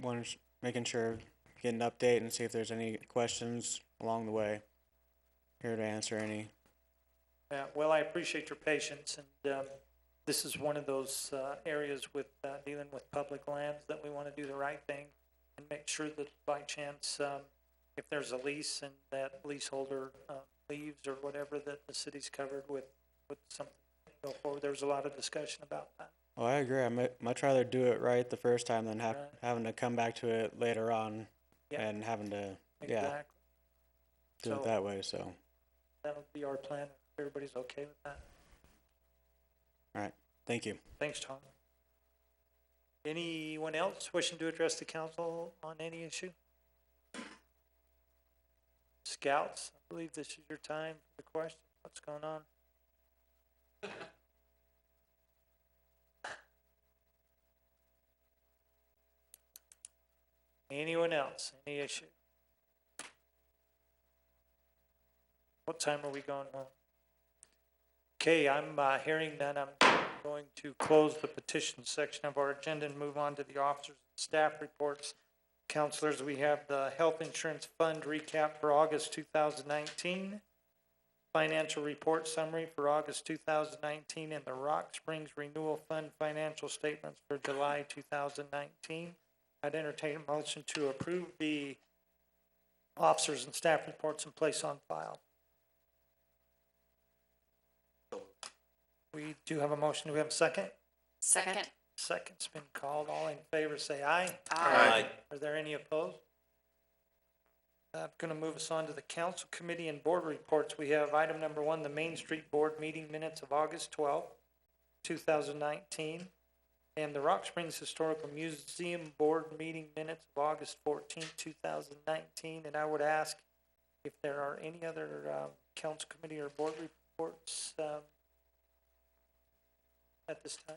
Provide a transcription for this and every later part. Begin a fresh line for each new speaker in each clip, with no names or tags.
wanted, s- making sure, get an update and see if there's any questions along the way. Here to answer any.
Yeah, Uh, well, I appreciate your patience, and um, this is one of those uh, areas with uh, dealing with public lands that we want to do the right thing and make sure that by chance, um, if there's a lease and that leaseholder uh, leaves or whatever, that the city's covered with, with something to go forward. There was a lot of discussion about that.
Oh, I agree. I mu- much rather do it right the first time than have,
Right.
having to come back to it later on
Yeah.
and having to yeah
Exactly.
do
So-
it that way. So,
That'll be our plan, if everybody's okay with that.
thank you.
Thanks, Tom. Anyone else wishing to address the council on any issue? Scouts, I believe this is your time for the question. What's going on? Anyone else? Any issue? What time are we going home? Okay, I'm, uh, hearing that I'm going to close the petition section of our agenda and move on to the officers and staff reports. Counselors, we have the Health Insurance Fund recap for August two thousand nineteen, financial report summary for August two thousand nineteen, and the Rock Springs Renewal Fund financial statements for July two thousand nineteen. I'd entertain a motion to approve the officers and staff reports and place on file. We do have a motion. Do we have a second?
Second.
Second's been called. All in favor, say aye.
Aye.
Are there any opposed? I'm gonna move us on to the council committee and board reports. We have item number one, the Main Street Board meeting minutes of August twelfth, two thousand nineteen, and the Rock Springs Historical Museum Board meeting minutes of August fourteenth, two thousand nineteen. And I would ask if there are any other, um, council committee or board reports, um, at this time.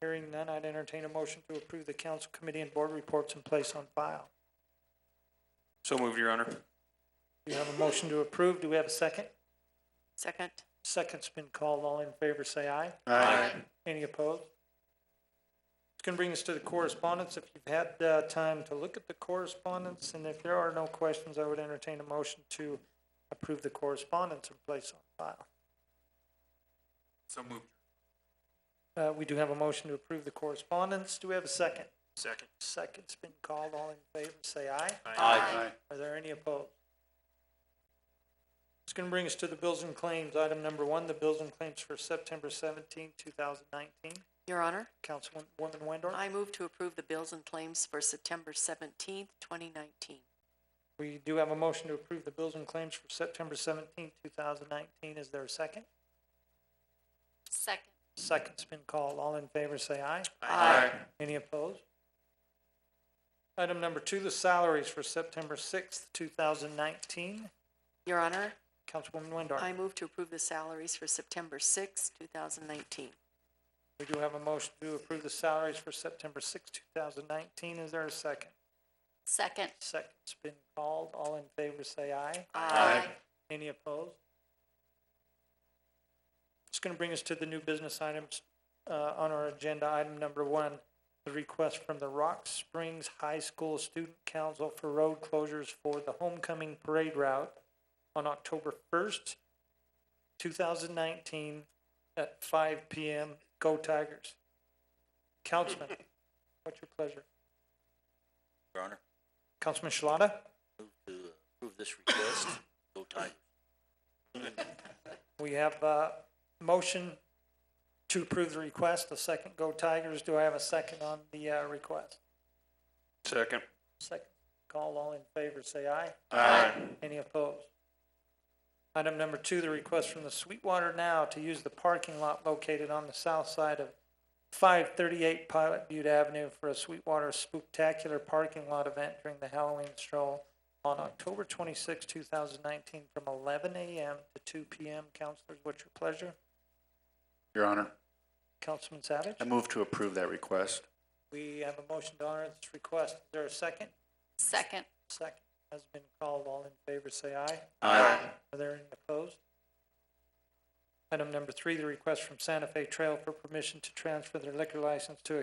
Hearing none, I'd entertain a motion to approve the council committee and board reports in place on file.
So moved, Your Honor.
Do you have a motion to approve? Do we have a second?
Second.
Second's been called. All in favor, say aye.
Aye.
Any opposed? It's gonna bring us to the correspondence. If you've had, uh, time to look at the correspondence, and if there are no questions, I would entertain a motion to approve the correspondence in place on file.
So moved.
Uh, we do have a motion to approve the correspondence. Do we have a second?
Second.
Second's been called. All in favor, say aye.
Aye.
Are there any opposed? It's gonna bring us to the bills and claims. Item number one, the bills and claims for September 17, thousand nineteen.
Your Honor,
Councilwoman Wendorf?
I move to approve the bills and claims for September seventeenth, twenty nineteen.
We do have a motion to approve the bills and claims for September 17, thousand nineteen. Is there a second?
Second.
Second's been called. All in favor, say aye.
Aye.
Any opposed? Item number two, the salaries for September sixth, two thousand nineteen.
Your Honor,
Councilwoman Wendorf?
I move to approve the salaries for September sixth, two thousand nineteen.
We do have a motion to approve the salaries for September sixth, two thousand nineteen. Is there a second?
Second.
Second's been called. All in favor, say aye.
Aye.
Any opposed? It's gonna bring us to the new business items, uh, on our agenda. Item number one, the request from the Rock Springs High School Student Council for road closures for the homecoming parade route on October first, two thousand nineteen, at five P M. Go Tigers. Councilman, what's your pleasure?
Your Honor,
Councilman Shalata?
move to approve this request. Go Tigers.
We have a motion to approve the request, a second Go Tigers. Do I have a second on the uh, request?
Second.
Second call, all in favor, say aye.
Aye.
Any opposed? Item number two, the request from the Sweetwater Now to use the parking lot located on the south side of five thirty-eight Pilot Butte Avenue for a Sweetwater Spooktacular Parking Lot event during the Halloween stroll on October twenty-six, two thousand nineteen, from eleven AM to two PM. Counselors, what's your pleasure?
Your Honor,
Councilman Savage?
I move to approve that request.
We have a motion to honor this request. Is there a second?
Second.
Second has been called. All in favor, say aye.
Aye.
Are there any opposed? Item number three, the request from Santa Fe Trail for permission to transfer their liquor license to a